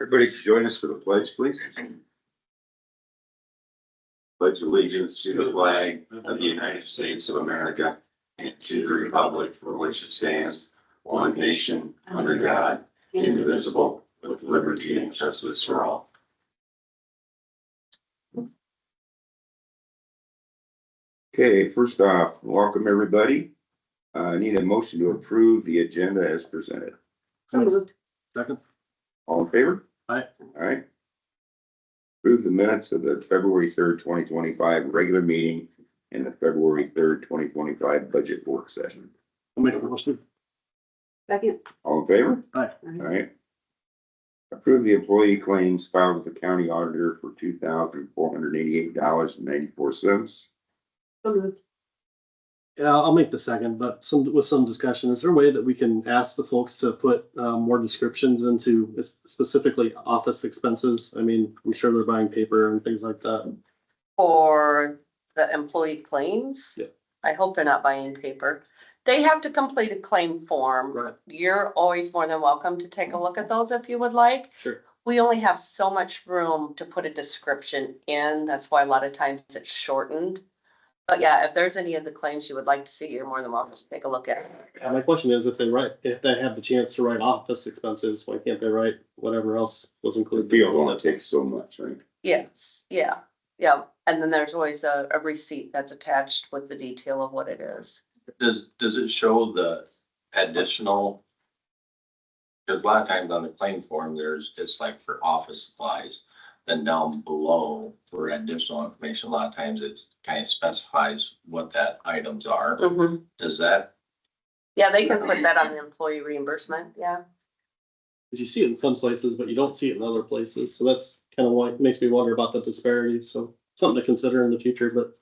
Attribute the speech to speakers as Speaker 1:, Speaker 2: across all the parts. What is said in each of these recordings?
Speaker 1: Everybody could join us for the pledge, please. Pledge allegiance to the flag of the United States of America and to the republic for which it stands, one nation, under God, indivisible, with liberty and justice for all. Okay, first off, welcome everybody. Uh, I need a motion to approve the agenda as presented.
Speaker 2: So moved.
Speaker 3: Second,
Speaker 1: All in favor?
Speaker 3: Aye.
Speaker 1: All right. Approve the minutes of the February third, twenty twenty-five regular meeting and the February third, twenty twenty-five budget work session.
Speaker 3: I'll make a motion.
Speaker 2: Second.
Speaker 1: All in favor?
Speaker 3: Aye.
Speaker 1: All right. Approve the employee claims filed with the county auditor for two thousand four hundred eighty-eight dollars and ninety-four cents.
Speaker 2: So moved.
Speaker 3: Yeah, I'll make the second, but some, with some discussion, is there a way that we can ask the folks to put, um, more descriptions into s- specifically office expenses? I mean, I'm sure they're buying paper and things like that.
Speaker 4: for the employee claims.
Speaker 3: Yeah.
Speaker 4: I hope they're not buying paper. They have to complete a claim form.
Speaker 3: Right.
Speaker 4: You're always more than welcome to take a look at those if you would like.
Speaker 3: Sure.
Speaker 4: We only have so much room to put a description in. That's why a lot of times it's shortened. But yeah, if there's any of the claims you would like to see, you're more than welcome to take a look at.
Speaker 3: And my question is, if they write, if they have the chance to write office expenses, why can't they write whatever else was
Speaker 1: The
Speaker 3: included?
Speaker 1: bill only takes so much, right?
Speaker 4: Yes, yeah, yeah. And then there's always a, a receipt that's attached with the detail of what it is.
Speaker 5: Does, does it show the additional? Cause a lot of times on the claim form, there's, it's like for office supplies, then down below for additional information, a lot of times it kind of specifies what that items are.
Speaker 4: Mm-hmm.
Speaker 5: Does that,
Speaker 4: Yeah, they can put that on the employee reimbursement, yeah.
Speaker 3: Cause you see it in some places, but you don't see it in other places. So that's kind of what makes me wonder about the disparities. So something to consider in the future, but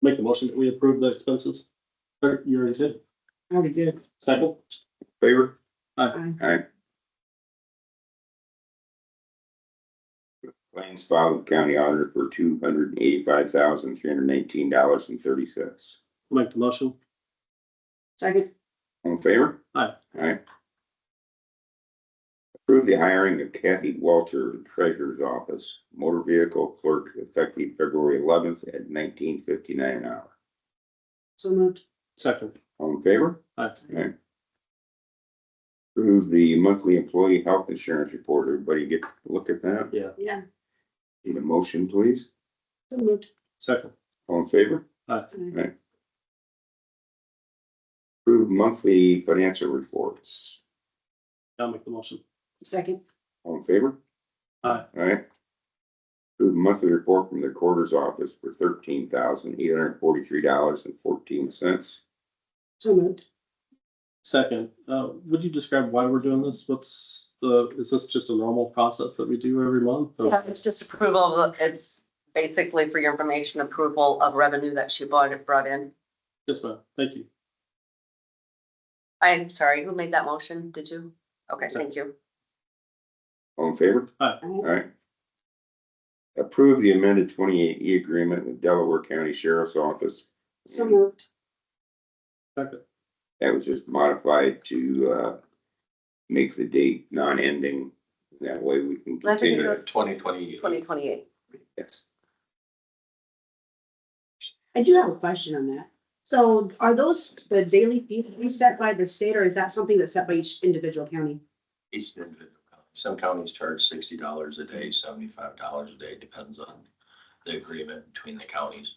Speaker 3: make the motion that we approve the expenses. Or you already did.
Speaker 2: Already did.
Speaker 3: Second,
Speaker 1: Favor?
Speaker 2: Aye.
Speaker 1: Aye. Claims filed with county auditor for two hundred eighty-five thousand three hundred nineteen dollars and thirty cents.
Speaker 3: make the motion.
Speaker 2: Second.
Speaker 1: All in favor?
Speaker 3: Aye.
Speaker 1: Aye. Approve the hiring of Kathy Walter, Treasurer's Office, Motor Vehicle Clerk, effective February eleventh at nineteen fifty-nine an hour.
Speaker 2: So moved.
Speaker 3: Second.
Speaker 1: All in favor?
Speaker 3: Aye.
Speaker 1: Aye. Approve the monthly employee health insurance report. Everybody get a look at that.
Speaker 2: Yeah.
Speaker 1: Need a motion, please?
Speaker 2: So moved.
Speaker 3: Second.
Speaker 1: All in favor?
Speaker 2: Aye.
Speaker 1: Approve monthly financial reports.
Speaker 3: I'll make the motion.
Speaker 2: Second.
Speaker 1: All in favor?
Speaker 3: Aye.
Speaker 1: Alright. Approve monthly report from the quarters office for thirteen thousand eight hundred forty-three dollars and fourteen cents.
Speaker 2: So moved.
Speaker 3: Second, uh, would you describe why we're doing this? What's the, is this just a normal process that we do every month? Oh, or-
Speaker 4: Yeah, it's just approval of, it's basically for your information, approval of revenue that she bought and brought in.
Speaker 3: Yes, ma'am. Thank you.
Speaker 4: I'm sorry, who made that motion? Did you? Okay, thank you.
Speaker 1: All in favor?
Speaker 2: Aye.
Speaker 1: Alright. Approve the amended twenty-eight E agreement with Delaware County Sheriff's Office.
Speaker 2: So moved.
Speaker 3: Second.
Speaker 1: That was just modified to, uh, make the date non-ending. That way we can
Speaker 4: I think it
Speaker 1: continue.
Speaker 4: was-
Speaker 5: twenty twenty?
Speaker 4: Twenty twenty-eight.
Speaker 1: Yes.
Speaker 2: I do have a question on that. So are those the daily fees set by the state or is that something that's set by each individual county?
Speaker 5: Some counties charge sixty dollars a day, seventy-five dollars a day, depends on the agreement between the counties.